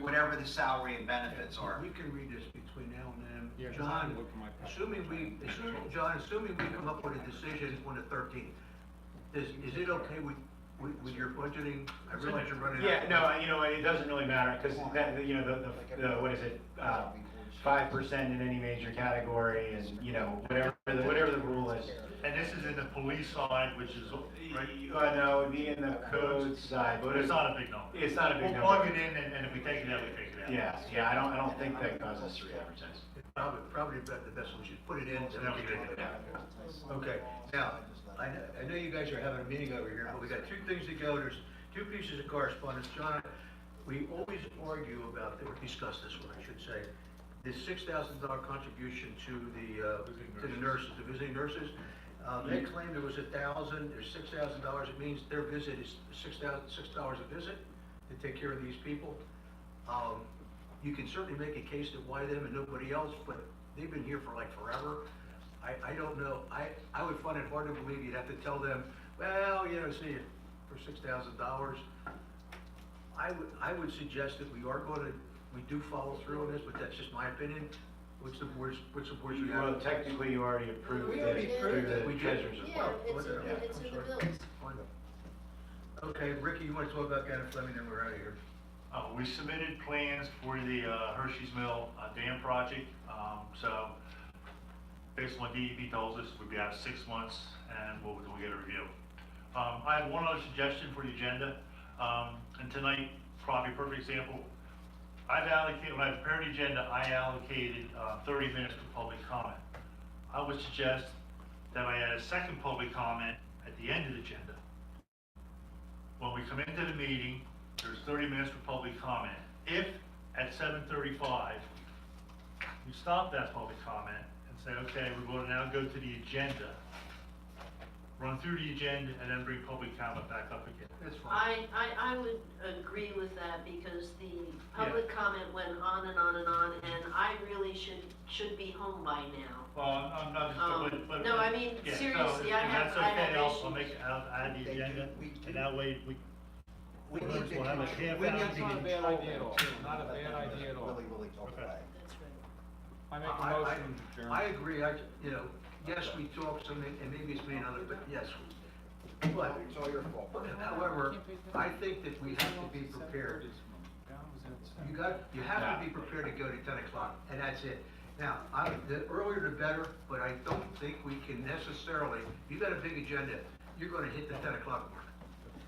whatever the salary and benefits are. We can read this between now and Yeah, then. 'cause I can John, look for my packet. assuming we, assuming, John, assuming we come up with a decision on the thirteenth, is, is it okay with, with, with your budgeting? I realize you're running out. Yeah, no, you know, it doesn't really matter, because that, you know, the- the, the, what is it? uh, Five percent in any major category and, you know, whatever, the- whatever the rule is. And this is in the police side, which is, right, Uh, no, it'd be in the code side, but but it's not a big number. It's not a big We'll number. plug it in and, and if we take it out, we take it out. Yeah, yeah, I don't, I don't think that causes three advertising. Probably, probably about the best, we should put it in. and then we can take it out. Okay, now, I know, I know you guys are having a meeting over here, but we got two things to go, there's two pieces of correspondence, John, we always argue about, or discuss this one, I should say, the six thousand dollar contribution to the, uh, to the nurses, the visiting nurses, uh, they claimed it was a thousand, there's six thousand dollars, it means their visit is six thousand, six dollars a visit to take care of these people. Um, you can certainly make a case that why them and nobody else, but they've been here for like forever. I, I don't know, I, I would find it hard to believe you'd have to tell them, well, you know, see, for six thousand dollars. I would, I would suggest that we are gonna, we do follow through on this, but that's just my opinion. What's the board's, what's the board's? Well, technically, you already approved We it already through approved it. the We did. treasurer's Yeah, report. it's, in Yeah, the- it's in the I'm bills. sorry. Okay, Ricky, you wanna talk about Gannett Fleming, then we're out of here. Uh, we submitted plans for the uh, Hershey's Mill uh, Dam project, um, so based on what DEP tells us, we'd be out six months and we'll, we'll get a review. Um, I have one other suggestion for the agenda, um, and tonight, probably a perfect example. I've allocated, when I prepared the agenda, I allocated, uh, thirty minutes for public comment. I would suggest that I add a second public comment at the end of the agenda. When we come into the meeting, there's 30 minutes for public comment. If at 7:35, we stop that public comment and say, okay, we're going to now go to the agenda, run through the agenda, and then bring public comment back up again. That's fine. I, I, I would agree with that because the public comment went on and on and on, and I really should, should be home by now. Well, I'm not Um, just, but- but. no, I mean, yeah, so seriously, I if have- I That's have okay, I'll, I'll issues. make, I'll add the They do- agenda, we do. and that way we, We need to We'll have control- a half we need hour to meeting. Not a bad control idea at all. them. Not a bad idea at all. Willy, willy, talk Okay. away. That's right. I make I- a I- motion, to adjourn. I agree, I, you know, yes, we talked some, and maybe it's me and other, but yes. But It's all your fault. However, I think that we have to be prepared. You got, you have to be prepared to go to ten o'clock, and that's it. Now, I, the earlier the better, but I don't think we can necessarily, you got a big agenda, you're gonna hit the ten o'clock mark.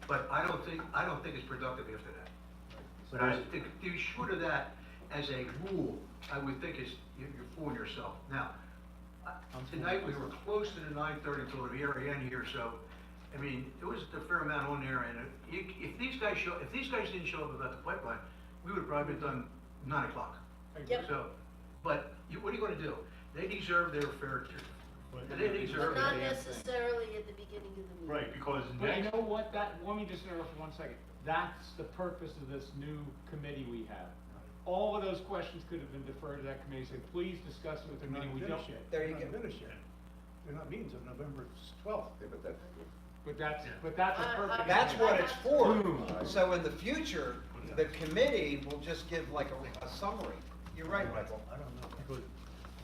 But I don't think, I don't think it's productive after that. But I think, do short of that, as a rule, I would think it's, you're you're fooling yourself. Now, I- tonight, we were close to the nine thirty till the very end here, so, I mean, it was a fair amount on there, and if- if these guys show, if these guys didn't show up about the pipeline, we would have probably been done nine o'clock. Yep. So, but you, what are you gonna do? They deserve their fair share. They But deserve not it. necessarily at the beginning of the meeting. right, because But you next, know what, that, let me just interrupt for one second. That's the purpose of this new committee we have. All of those questions could have been deferred to that committee, so please discuss it with the meeting, we don't. There you go. They're not meeting until November twelfth. But that's, but that's a I- I- uh, perfect. That's what it's for. Boom. So in the future, the committee will just give like a, a summary. You're right, Michael. I don't know, because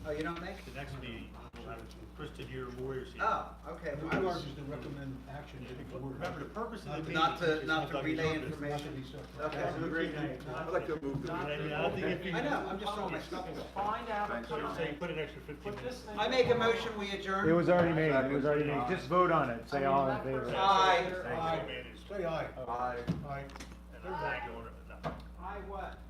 Oh, you don't make? the next meeting, we'll have Kristen here, lawyers here. Ah, Oh, okay. The I board was- is to recommend action to the board. Remember, the purpose of the meeting. Not is to, not to conduct relay business. information. Okay. Have a great night. I'd like to move the- Not- I mean, I don't think it'd be- I know, I'm just throwing my stuff away. Find out, So you're saying put an extra fifteen put this minutes. thing. I make a motion, we adjourn. It was already made, it was already made, just vote on it, say all in favor. Aye. Thanks, Aye. man. It's- Say aye. Aye. Aye. and everybody going, no. I what?